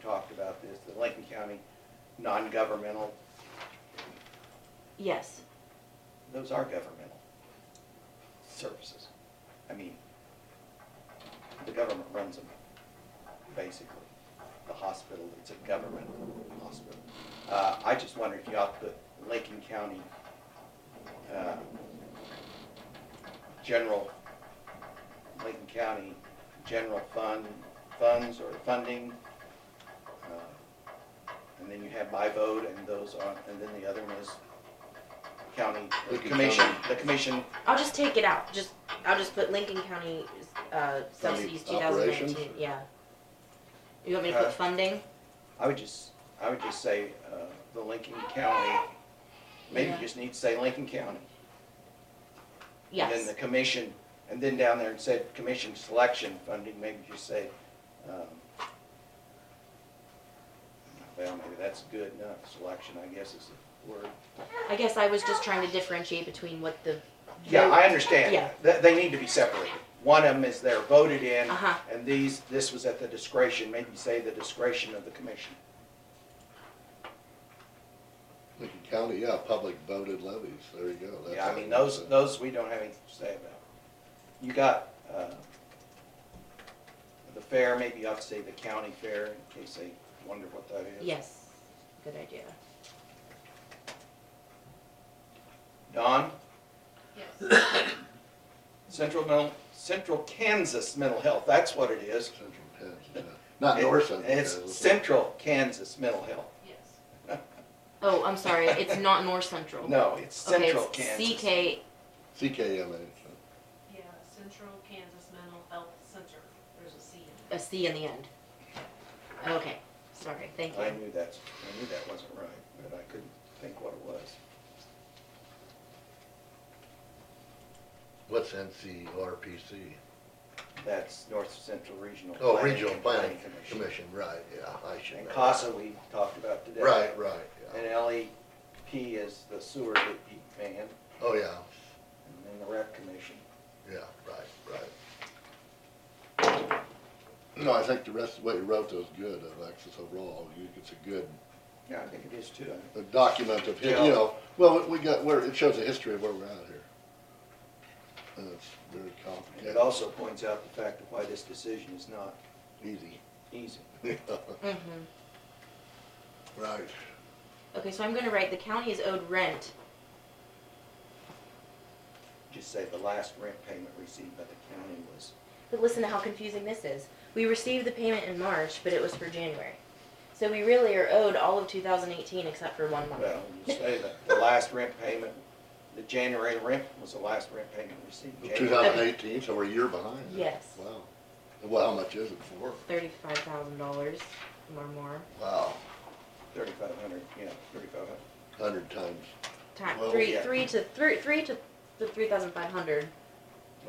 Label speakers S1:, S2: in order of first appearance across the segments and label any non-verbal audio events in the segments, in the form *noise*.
S1: talked about this, the Lincoln County non-governmental,
S2: Yes,
S1: those are governmental services. I mean, the government runs them, basically. The hospital, it's a government hospital. Uh, I just wonder if you ought to put Lincoln County, uh, general, Lincoln County general fund, funds or funding. uh, And then you have my vote and those on, and then the other one is county, the
S3: Lincoln
S1: commission,
S3: County.
S1: the commission
S2: I'll just take it out, just, I'll just put Lincoln County, uh, subsidies two thousand
S3: operations?
S2: nineteen, yeah. You want me to put
S1: Uh,
S2: funding?
S1: I would just, I would just say, uh, the Lincoln County, maybe you
S2: Yeah.
S1: just need to say Lincoln County. And then
S2: Yes,
S1: the commission, and then down there it said commission selection funding, maybe just say, um, well, maybe that's good enough, selection, I guess is the word.
S2: I guess I was just trying to differentiate between what the.
S1: Yeah, I understand.
S2: Yeah.
S1: They, they need to be separated. One of them is they're voted in,
S2: Uh-huh.
S1: and these, this was at the discretion, maybe say the discretion of the commission.
S3: Lincoln County, yeah, public voted levies, there you go. That's
S1: Yeah, I
S3: how
S1: mean,
S3: you
S1: those,
S3: do that.
S1: those we don't have anything to say about. You got, uh, the fair, maybe you ought to say the county fair, in case they wonder what that is.
S2: Yes, good idea.
S1: Don,
S4: Yes.
S1: Central Mental, Central Kansas Mental Health, that's what it is.
S3: Central Penn, yeah. Not North Central. Penn,
S1: It's
S3: is it?
S1: Central Kansas Mental Health.
S4: Yes.
S2: Oh, I'm
S1: *laughs*
S2: sorry, it's not North Central.
S1: No, it's
S2: Okay,
S1: Central
S2: it's
S1: Kansas.
S2: CK,
S3: CKMA. so.
S4: Yeah, Central Kansas Mental Health Center. There's a C in
S2: a C in the end. Okay, sorry, thank
S1: I
S2: you.
S1: knew that's, I knew that wasn't right, but I couldn't think what it was.
S3: What's NCRPC?
S1: That's North Central Regional.
S3: Oh,
S1: Planning
S3: Regional
S1: and
S3: Planning Commission, right, yeah, I should know.
S1: And
S3: that.
S1: CASA we talked about today.
S3: Right, right, yeah.
S1: And LEP is the sewer deep man,
S3: Oh, yeah,
S1: and then the rec commission.
S3: yeah, right, right. No, I think the rest of what you wrote was good, Alexis, overall. You- It's a good
S1: Yeah, I think it is too.
S3: a document of, hi- you know, well, we- we got, where, it shows the history of where we're at here. And it's very
S1: And it
S3: complicated,
S1: also points out the fact of why this decision is not
S3: easy. *laughs*
S1: easy.
S2: Mm-hmm.
S3: Right.
S2: Okay, so I'm gonna write, the county is owed rent
S1: Just say the last rent payment received by the county was,
S2: But listen to how confusing this is. We received the payment in March, but it was for January. So we really are owed all of 2018 except for one month.
S1: well, you say that the last rent payment, the January rent was the last rent payment received.
S3: Two
S1: January.
S3: thousand eighteen, so we're a year behind.
S2: Yes.
S3: Wow. Well, how much is it for?
S2: $35,000 or more.
S3: Wow,
S1: Thirty-five hundred, yeah, thirty-five hundred.
S3: hundred times.
S2: Time,
S3: Well,
S2: three,
S1: yeah.
S2: three to three, three to the 3,500,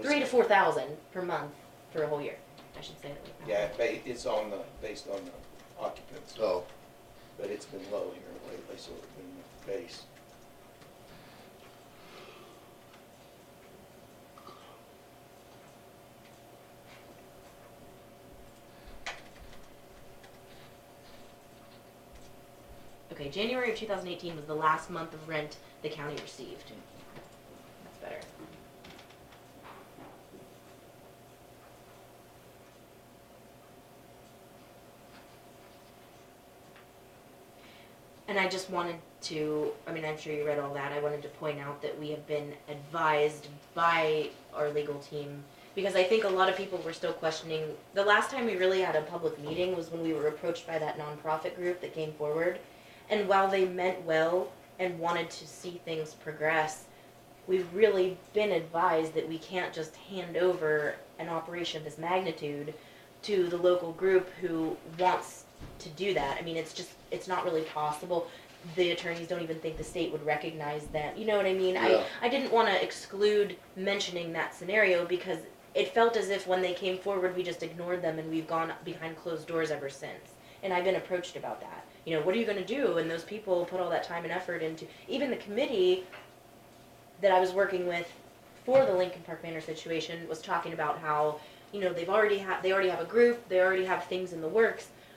S2: three to 4,000 per month for a whole year. I should say it like that.
S1: Yeah, it ba- it's on the, based on the occupants,
S3: So,
S1: but it's been low here lately, so it's been the base.
S2: Okay, January of 2018 was the last month of rent the county received. That's better. And I just wanted to, I mean, I'm sure you read all that, I wanted to point out that we have been advised by our legal team, because I think a lot of people were still questioning, the last time we really had a public meeting was when we were approached by that nonprofit group that came forward, and while they meant well and wanted to see things progress, we've really been advised that we can't just hand over an operation of this magnitude to the local group who wants to do that. I mean, it's just, it's not really possible. The attorneys don't even think the state would recognize them. You know what I mean?
S3: Yeah.
S2: I, I didn't want to exclude mentioning that scenario because it felt as if when they came forward, we just ignored them and we've gone behind closed doors ever since and I've been approached about that. You know, what are you going to do? And those people put all that time and effort into, even the committee that I was working with for the Lincoln Park Manor situation was talking about how, you know, they've already had, they already have a group, they already have things in the works,